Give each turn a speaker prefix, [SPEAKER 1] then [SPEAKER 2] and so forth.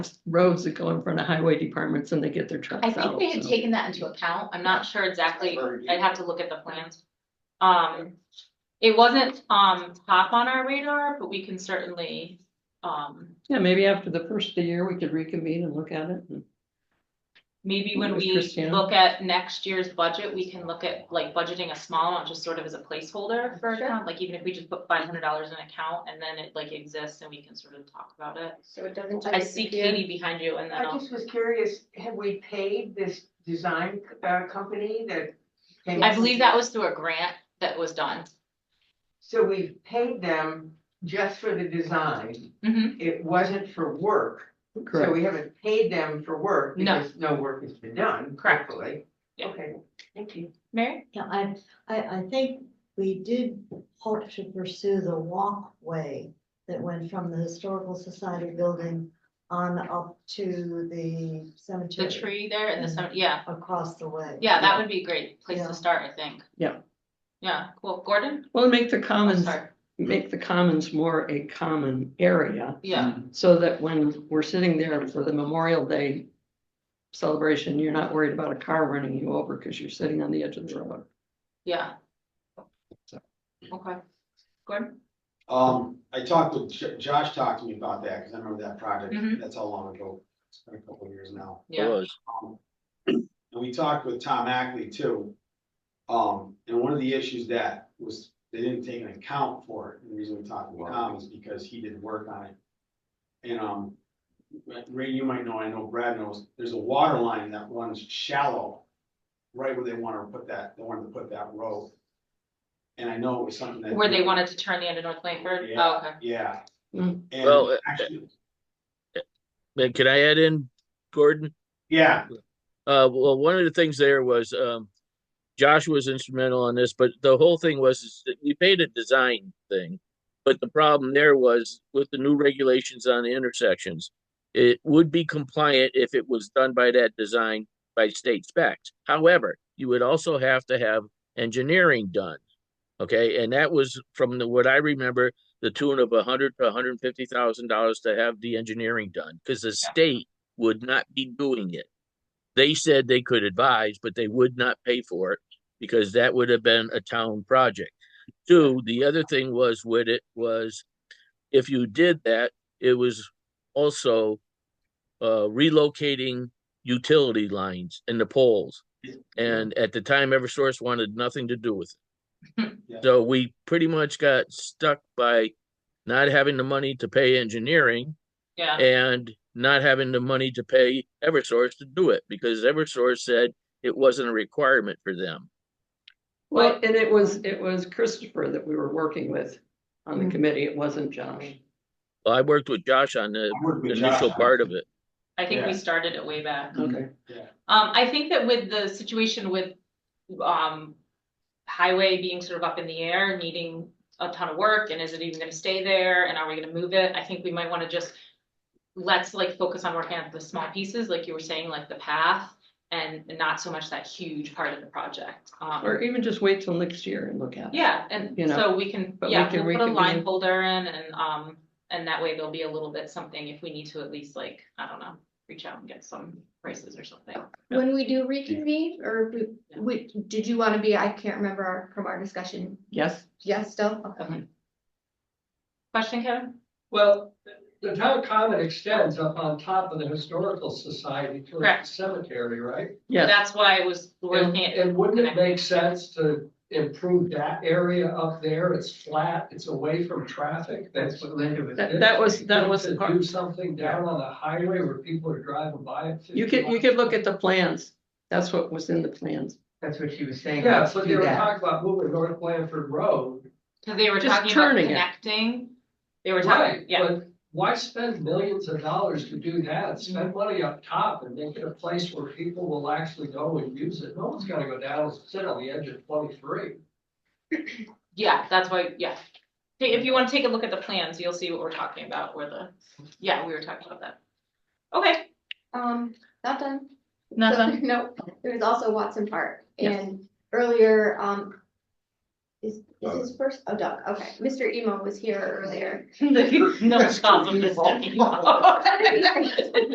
[SPEAKER 1] roads that go in front of highway departments and they get their trucks
[SPEAKER 2] I
[SPEAKER 1] out.
[SPEAKER 2] think they had
[SPEAKER 1] so.
[SPEAKER 2] taken that into account. I'm not sure exactly. I'd have to look at the plans. Um, it wasn't, um, top on our radar, but we can certainly, um,
[SPEAKER 1] Yeah, maybe after the first of the year, we could reconvene and look at it. and-
[SPEAKER 2] maybe when
[SPEAKER 1] Miss
[SPEAKER 2] we
[SPEAKER 1] Christina?
[SPEAKER 2] look at next year's budget, we can look at like budgeting a small amount, just sort of as a placeholder for
[SPEAKER 3] Sure.
[SPEAKER 2] account. Like even if we just put five hundred dollars in account and then it like exists and we can sort of talk about it.
[SPEAKER 3] So it doesn't
[SPEAKER 2] I
[SPEAKER 3] just
[SPEAKER 2] see
[SPEAKER 3] disappear.
[SPEAKER 2] Katie behind you and then
[SPEAKER 4] I
[SPEAKER 2] I'll-
[SPEAKER 4] just was curious, have we paid this design uh, company that? came
[SPEAKER 2] I
[SPEAKER 4] up
[SPEAKER 2] believe
[SPEAKER 4] with-
[SPEAKER 2] that was through a grant that was done.
[SPEAKER 4] So we paid them just for the design.
[SPEAKER 2] Mhm.
[SPEAKER 4] It wasn't for work, so
[SPEAKER 1] Correct.
[SPEAKER 4] we haven't paid them for work
[SPEAKER 2] No.
[SPEAKER 4] because no work has been done.
[SPEAKER 2] Correct.
[SPEAKER 4] Correctly.
[SPEAKER 2] Yeah.
[SPEAKER 4] Okay, thank you.
[SPEAKER 2] Mary?
[SPEAKER 5] Yeah, I, I, I think we did hope to pursue the walkway that went from the Historical Society building on up to the
[SPEAKER 2] The
[SPEAKER 5] cemetery.
[SPEAKER 2] tree there and the,
[SPEAKER 5] Mhm.
[SPEAKER 2] cem- yeah.
[SPEAKER 5] Across the way.
[SPEAKER 2] Yeah, that would be a great place
[SPEAKER 5] Yeah.
[SPEAKER 2] to start, I think.
[SPEAKER 1] Yeah.
[SPEAKER 2] Yeah, cool. Gordon?
[SPEAKER 1] Well, make the
[SPEAKER 2] Oh,
[SPEAKER 1] commons,
[SPEAKER 2] sorry.
[SPEAKER 1] make the commons more a common area
[SPEAKER 2] Yeah,
[SPEAKER 1] so that when we're sitting there for the Memorial Day celebration, you're not worried about a car running you over because you're sitting on the edge of the road.
[SPEAKER 2] yeah.
[SPEAKER 1] So.
[SPEAKER 2] Okay. Gordon?
[SPEAKER 6] Um, I talked with, Jo- Josh talked to me about that, cause I remember that project,
[SPEAKER 2] Mhm.
[SPEAKER 6] that's how long ago, it's been a couple of years now.
[SPEAKER 7] It
[SPEAKER 2] Yeah,
[SPEAKER 7] was.
[SPEAKER 6] And we talked with Tom Ackley too. Um, and one of the issues that was, they didn't take an account for it, and the reason we talked with Tom is because he did work on it. And, um, Ray, you might know, I know Brad knows, there's a water line that runs shallow, right where they wanna put that, they wanted to put that road. And I know it was something that.
[SPEAKER 2] where they wanted to turn the end of North Langford?
[SPEAKER 6] Yeah.
[SPEAKER 2] Oh, okay.
[SPEAKER 6] Yeah.
[SPEAKER 1] Mm.
[SPEAKER 6] And
[SPEAKER 7] Well, uh,
[SPEAKER 6] actually,
[SPEAKER 7] Man, Can I add in, Gordon?
[SPEAKER 6] yeah,
[SPEAKER 7] Uh, well, one of the things there was, um, Josh was instrumental in this, but the whole thing was is that we paid a design thing. But the problem there was with the new regulations on the intersections, it would be compliant if it was done by that design by state specs. However, you would also have to have engineering done. Okay, and that was from the, what I remember, the tune of a hundred to hundred and fifty thousand dollars to have the engineering done, because the state would not be doing it. They said they could advise, but they would not pay for it because that would have been a town project. Two, the other thing was with it was if you did that, it was also uh relocating utility lines and the poles. And at the time, Eversource wanted nothing to do with it.
[SPEAKER 6] Yeah.
[SPEAKER 7] So we pretty much got stuck by not having the money to pay engineering
[SPEAKER 2] Yeah,
[SPEAKER 7] and not having the money to pay Eversource to do it because Eversource said it wasn't a requirement for them.
[SPEAKER 1] Well, and it was, it was Christopher that we were working with on
[SPEAKER 2] Mm-hmm.
[SPEAKER 1] the committee. It wasn't Josh.
[SPEAKER 7] Well, I worked with Josh on the
[SPEAKER 6] I worked with
[SPEAKER 7] initial
[SPEAKER 6] Josh.
[SPEAKER 7] part of it.
[SPEAKER 2] I think we
[SPEAKER 6] Yeah.
[SPEAKER 2] started it way back.
[SPEAKER 1] Okay.
[SPEAKER 2] Um, I think that with the situation with, um, highway being sort of up in the air, needing a ton of work, and is it even gonna stay there, and are we gonna move it? I think we might wanna just, let's like focus on working on the small pieces, like you were saying, like the path, and not so much that huge part of the project. Um,
[SPEAKER 1] Or even just wait till next year and look at it.
[SPEAKER 2] Yeah, and
[SPEAKER 1] You know,
[SPEAKER 2] so we can,
[SPEAKER 1] but we
[SPEAKER 2] yeah,
[SPEAKER 1] can
[SPEAKER 2] we'll put a line
[SPEAKER 1] reconvene.
[SPEAKER 2] holder in and, um, and that way there'll be a little bit something if we need to at least like, I don't know, reach out and get some prices or something.
[SPEAKER 3] When we do reconvene, or we, we, did you wanna be, I can't remember our- from our discussion,
[SPEAKER 1] Yes,
[SPEAKER 3] yes, still, okay.
[SPEAKER 2] Question, Kevin?
[SPEAKER 8] Well, the town common extends up on top of the historical society towards
[SPEAKER 2] Correct.
[SPEAKER 8] the cemetery, right?
[SPEAKER 1] yes.
[SPEAKER 2] That's why it was
[SPEAKER 8] And,
[SPEAKER 2] looking at,
[SPEAKER 8] and wouldn't it make sense to improve that area up there? It's flat, it's away from traffic, that's what Linda was.
[SPEAKER 1] That- that was- that was
[SPEAKER 8] To
[SPEAKER 1] part-
[SPEAKER 8] do something down on the highway where people are driving by. at
[SPEAKER 1] You could, you
[SPEAKER 8] 50
[SPEAKER 1] could look at the plans. That's what was in the plans.
[SPEAKER 4] That's what she was saying.
[SPEAKER 8] Yeah,
[SPEAKER 4] let's
[SPEAKER 8] but
[SPEAKER 4] do
[SPEAKER 8] they were
[SPEAKER 4] that.
[SPEAKER 8] talking about moving North Blanford Road.
[SPEAKER 2] cause they were
[SPEAKER 1] Just
[SPEAKER 2] talking about
[SPEAKER 1] turning it.
[SPEAKER 2] connecting. They were
[SPEAKER 8] Right,
[SPEAKER 2] talking, yeah, Mm-hmm.
[SPEAKER 8] but Why spend millions of dollars to do that? Spend money up top and make it a place where people will actually go and use it. No one's gonna go down and sit on the edge of twenty-three.
[SPEAKER 2] yeah, that's why, yeah. Hey, If you wanna take a look at the plans, you'll see what we're talking about, or the, yeah, we were talking about that. Okay,
[SPEAKER 3] Um, not done.
[SPEAKER 2] not done.
[SPEAKER 3] No, there was also Watson Park
[SPEAKER 1] Yes.
[SPEAKER 3] and earlier, um. Is, is his first, oh Doug, okay, Mr. Emo was here earlier.
[SPEAKER 2] No problem, Mr. Emo.